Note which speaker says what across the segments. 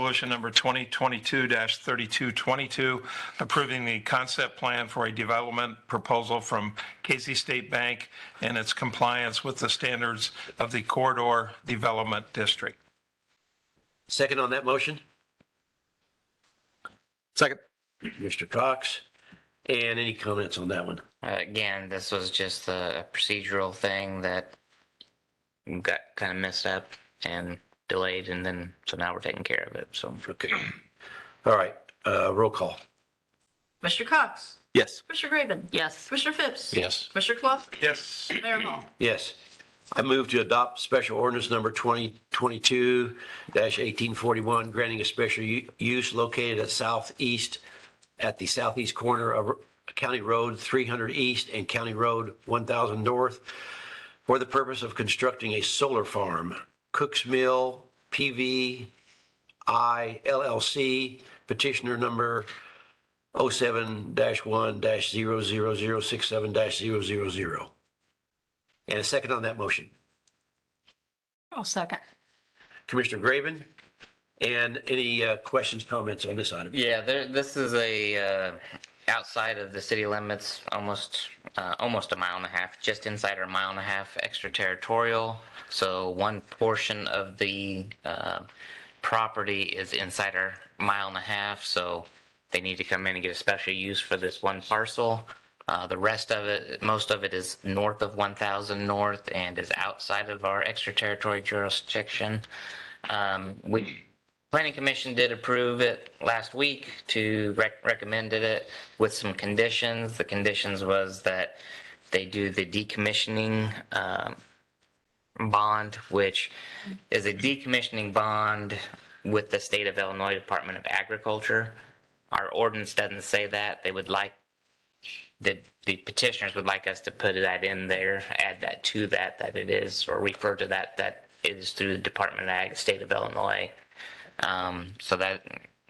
Speaker 1: Resolution number 2022-3222, approving the concept plan for a development proposal from Casey State Bank and its compliance with the standards of the Corridor Development District.
Speaker 2: Second on that motion?
Speaker 3: Second.
Speaker 2: Mr. Cox. And any comments on that one?
Speaker 4: Uh, Again, this was just a a procedural thing that got kind of messed up and delayed, and then, so now we're taking care of it, so.
Speaker 2: Okay. All right, uh, roll call.
Speaker 5: Mr. Cox.
Speaker 3: Yes.
Speaker 5: Mr. Graven.
Speaker 4: Yes.
Speaker 5: Mr. Phipps.
Speaker 2: Yes.
Speaker 5: Mr. Clough.
Speaker 1: Yes.
Speaker 5: Mayor Hall.
Speaker 2: Yes. I move to adopt special ordinance number 2022-1841, granting a special u- use located at southeast, at the southeast corner of County Road 300 East and County Road 1000 North for the purpose of constructing a solar farm, Cook's Mill PV I LLC, petitioner number 07-1-00067-000. And a second on that motion.
Speaker 6: I'll second.
Speaker 2: Commissioner Graven, and any uh, questions, comments on this item?
Speaker 4: Yeah, there, this is a, uh, outside of the city limits, almost, uh, almost a mile and a half, just inside our mile and a half extraterritorial. So one portion of the, uh, property is inside our mile and a half, so they need to come in and get a special use for this one parcel. Uh, the rest of it, most of it is north of one thousand north and is outside of our extraterritorial jurisdiction. Um, we, Planning Commission did approve it last week to rec- recommended it with some conditions. The conditions was that they do the decommissioning, um, bond, which is a decommissioning bond with the state of Illinois Department of Agriculture. Our ordinance doesn't say that. They would like, the, the petitioners would like us to put that in there, add that to that, that it is, or refer to that, that it is through the Department of Ag, state of Illinois. Um, so that,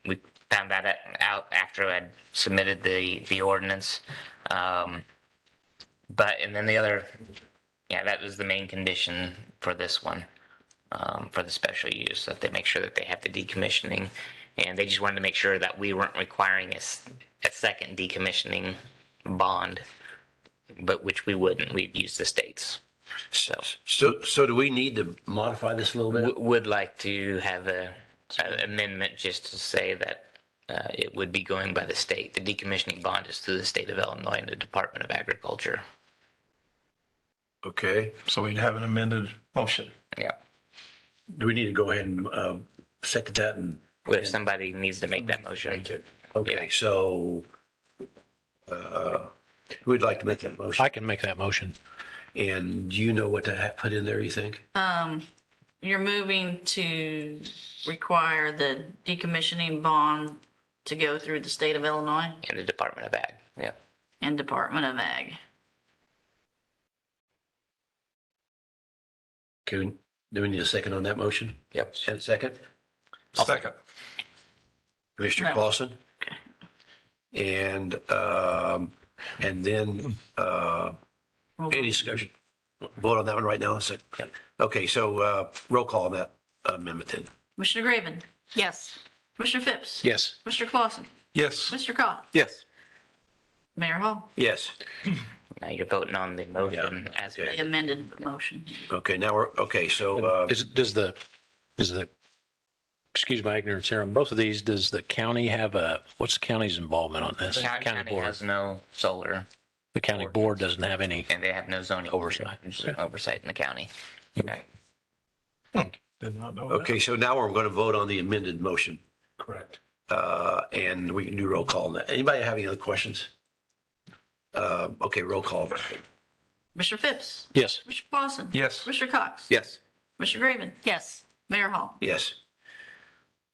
Speaker 4: we found that out after I'd submitted the, the ordinance. Um, but, and then the other, yeah, that was the main condition for this one, um, for the special use, that they make sure that they have the decommissioning. And they just wanted to make sure that we weren't requiring a, s- a second decommissioning bond, but which we wouldn't, we'd use the states. So,
Speaker 2: So, so do we need to modify this a little bit?
Speaker 4: w- would like to have a, a amendment just to say that, uh, it would be going by the state. The decommissioning bond is through the state of Illinois and the Department of Agriculture.
Speaker 2: Okay,
Speaker 1: So we'd have an amended motion.
Speaker 4: Yeah.
Speaker 2: do we need to go ahead and uh, second that and?
Speaker 4: If somebody needs to make that motion.
Speaker 2: Okay, so uh, we'd like to make that motion.
Speaker 7: I can make that motion.
Speaker 2: And do you know what to ha- put in there, you think?
Speaker 5: Um, you're moving to require the decommissioning bond to go through the state of Illinois
Speaker 4: in the Department of Ag. Yeah.
Speaker 5: and Department of Ag.
Speaker 2: Can, do we need a second on that motion?
Speaker 4: Yep.
Speaker 2: And a second?
Speaker 1: Second.
Speaker 2: Commissioner
Speaker 5: No.
Speaker 2: Clausen. And, um, and then, uh, any discussion? Vote on that one right now, is it? Okay, so, uh, roll call on that amendment then.
Speaker 5: Commissioner Graven.
Speaker 6: Yes.
Speaker 5: Commissioner Phipps.
Speaker 7: Yes.
Speaker 5: Mr. Clausen.
Speaker 1: Yes.
Speaker 5: Mr. Cox.
Speaker 3: Yes.
Speaker 5: Mayor Hall.
Speaker 2: Yes,
Speaker 4: Now you're voting on the motion as
Speaker 2: Yeah.
Speaker 5: The amended motion.
Speaker 2: okay, now we're, okay, so, uh,
Speaker 7: Is, does the, is the, excuse my ignorance here, on both of these, does the county have a, what's the county's involvement on this?
Speaker 4: The County
Speaker 7: board.
Speaker 4: has no solar
Speaker 7: The county board doesn't have any,
Speaker 4: and they have no zoning.
Speaker 7: Oversight.
Speaker 4: Oversight in the county. Right.
Speaker 1: Did not know that.
Speaker 2: okay, so now we're going to vote on the amended motion.
Speaker 1: Correct.
Speaker 2: Uh, and we can do roll call on that. Anybody have any other questions? Uh, okay, roll call.
Speaker 5: Mr. Phipps.
Speaker 7: yes.
Speaker 5: Mr. Clausen.
Speaker 1: Yes.
Speaker 5: Mr. Cox.
Speaker 3: Yes.
Speaker 5: Mr. Graven.
Speaker 6: Yes.
Speaker 5: Mayor Hall.
Speaker 2: Yes.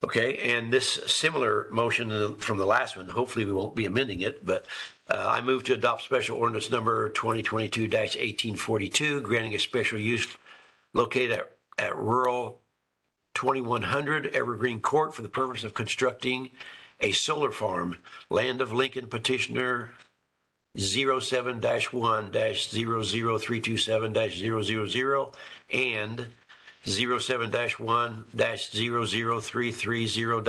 Speaker 2: Okay, and this similar motion from the last one, hopefully we won't be amending it, but uh, I move to adopt special ordinance number 2022-1842, granting a special use located at- at rural 2100 Evergreen Court for the purpose of constructing a solar farm, Land of Lincoln petitioner 07-1-00327-000 and 07-1-00330